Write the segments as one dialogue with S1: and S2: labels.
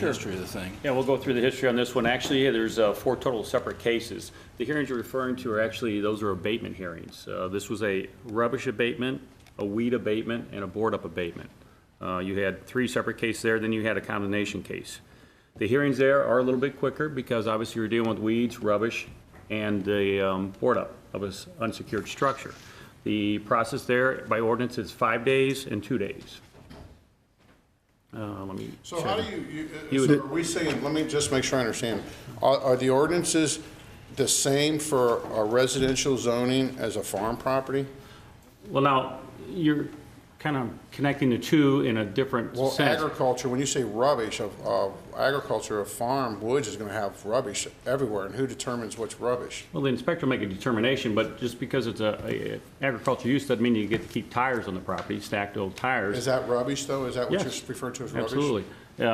S1: the history of the thing.
S2: Yeah, we'll go through the history on this one. Actually, yeah, there's uh, four total separate cases. The hearings you're referring to are actually, those are abatement hearings. Uh, This was a rubbish abatement, a weed abatement, and a board-up abatement. Uh, You had three separate cases there, then you had a condemnation case. The hearings there are a little bit quicker because obviously you're dealing with weeds, rubbish, and the um, board-up of an unsecured structure. The process there, by ordinance, is five days and two days. Uh, Let me.
S3: So how do you,
S2: You
S3: you,
S2: would-
S3: so are we saying, let me just make sure I understand, are, are the ordinances the same for a residential zoning as a farm property?
S2: Well, now, you're kind of connecting the two in a different
S3: Well,
S2: sense.
S3: agriculture, when you say rubbish, of, of agriculture, a farm, woods is gonna have rubbish everywhere, and who determines what's rubbish?
S2: Well, the inspector make a determination, but just because it's a- a agricultural use doesn't mean you get to keep tires on the property, stacked old tires.
S3: Is that rubbish, though? Is that what
S2: Yes.
S3: you're referring to as rubbish?
S2: Absolutely. Um,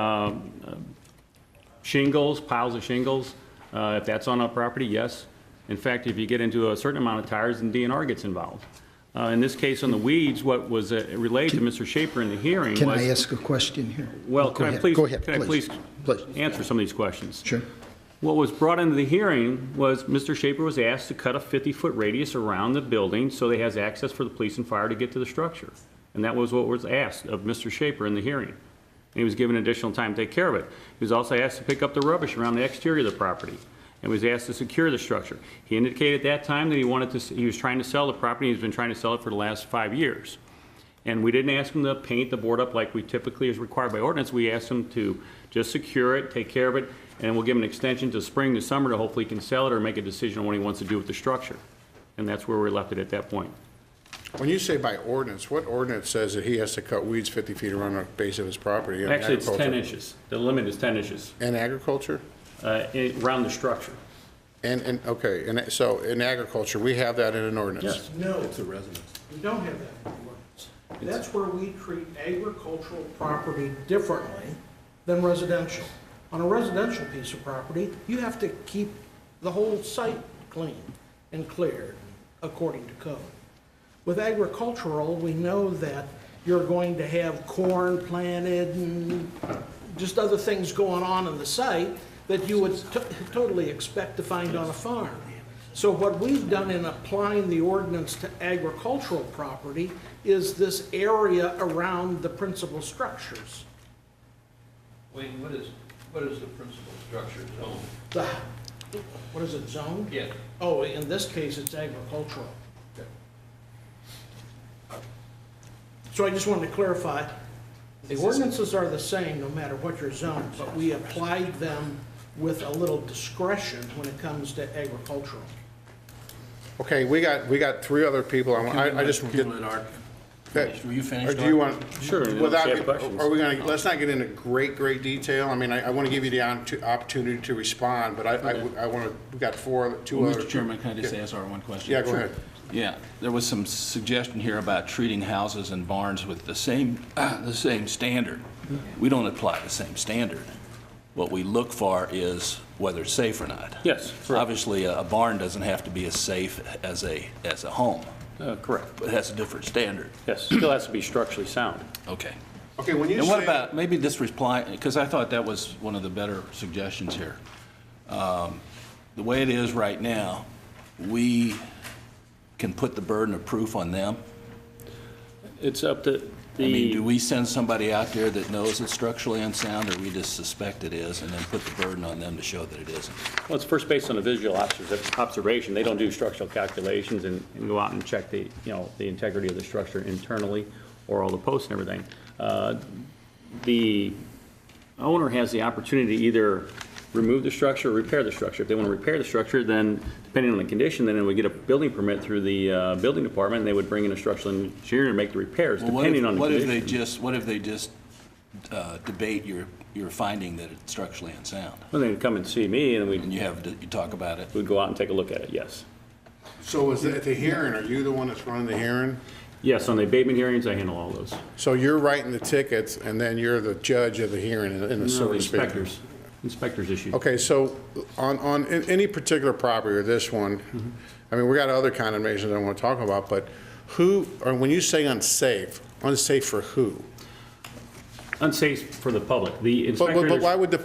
S2: um, Shingles, piles of shingles, uh, if that's on a property, yes. In fact, if you get into a certain amount of tires, then DNR gets involved. Uh, In this case, on the weeds, what was uh, relayed to Mr. Shaper in the hearing was...
S4: Can I ask a question here?
S2: Well,
S4: Go
S2: can I
S4: ahead,
S2: please,
S4: Go ahead,
S2: can I please
S4: please. Please.
S2: answer some of these questions?
S4: Sure.
S2: What was brought into the hearing was Mr. Shaper was asked to cut a 50-foot radius around the building so they has access for the police and fire to get to the structure. And that was what was asked of Mr. Shaper in the hearing. And he was given additional time to take care of it. He was also asked to pick up the rubbish around the exterior of the property and was asked to secure the structure. He indicated at that time that he wanted to, s- he was trying to sell the property, he's been trying to sell it for the last five years. And we didn't ask them to paint the board up like we typically is required by ordinance. We asked them to just secure it, take care of it, and we'll give him an extension to spring to summer to hopefully he can sell it or make a decision on what he wants to do with the structure. And that's where we left it at that point.
S3: When you say by ordinance, what ordinance says that he has to cut weeds 50 feet around the base of his property? in
S2: Actually, it's ten
S3: agriculture?
S2: inches. The limit is ten inches,
S3: In agriculture?
S2: uh, in- around the structure.
S3: And, and, okay, and so in agriculture, we have that in an ordinance?
S2: Yes.
S5: No,
S1: It's a residence.
S5: we don't have that in the ordinance. That's where we treat agricultural property differently than residential. On a residential piece of property, you have to keep the whole site clean and cleared according to code. With agricultural, we know that you're going to have corn planted and just other things going on in the site that you would to- totally expect to find on a farm. So what we've done in applying the ordinance to agricultural property is this area around the principal structures.
S6: Wayne, what is, what is the principal structure zone?
S5: The, what is it, zoned?
S6: Yeah.
S5: Oh, in this case, it's agricultural. So I just wanted to clarify, the ordinances are the same no matter what your zone, but we applied them with a little discretion when it comes to agricultural.
S3: Okay, we got, we got three other people, I want- I, I just.
S1: Can we let Art finish? Were you
S3: Or
S1: finished?
S3: do you
S1: Art?
S3: want?
S2: Sure, and then
S3: without-
S2: if you have questions.
S3: Are we gonna, let's not get into great, great detail, I mean, I, I wanna give you the opportu- opportunity to respond, but I, I, would- I wanna, we got four, two
S1: Well,
S3: other.
S1: Mr. Chairman, can I just ask Art one question?
S3: Yeah, go ahead.
S1: Yeah, there was some suggestion here about treating houses and barns with the same, the same standard. We don't apply the same standard. What we look for is whether it's safe or not.
S2: Yes, correct.
S1: Obviously, a a barn doesn't have to be as safe as a, as a home,
S2: Uh, correct.
S1: but it has a different standard.
S2: Yes, still has to be structurally sound.
S1: Okay.
S3: Okay, when you
S1: And what
S3: say-
S1: about, maybe this reply, because I thought that was one of the better suggestions here. Um, The way it is right now, we can put the burden of proof on them.
S2: It's up to
S1: I mean, do
S2: the,
S1: we send somebody out there that knows it's structurally unsound, or we just suspect it is, and then put the burden on them to show that it isn't?
S2: well, it's first based on a visual obser- observation. They don't do structural calculations and and go out and check the, you know, the integrity of the structure internally or all the posts and everything. Uh, the owner has the opportunity to either remove the structure or repair the structure. If they want to repair the structure, then depending on the condition, then it would get a building permit through the uh, building department, and they would bring in a structural engineer to make the repairs,
S1: Well, what if-
S2: depending on the
S1: What if they
S2: condition.
S1: just, what if they just uh, debate your, your finding that it's structurally unsound?
S2: Well, they'd come and see me, and
S1: And
S2: we'd,
S1: you have, you talk about it?
S2: we'd go out and take a look at it, yes.
S3: So is it at the hearing, are you the one that's running the hearing?
S2: Yes, on the abatement hearings, I handle all those.
S3: So you're writing the tickets, and then you're the judge of the hearing, in a- in a
S2: No,
S3: certain speaker?
S2: Inspectors, inspectors issue.
S3: Okay, so on, on a- any particular property or this one, I mean, we got other condemnations I want to talk about, but who, or when you say unsafe, unsafe for who?
S7: unsafe for the public. The
S2: But,
S7: inspector.
S2: but but why would the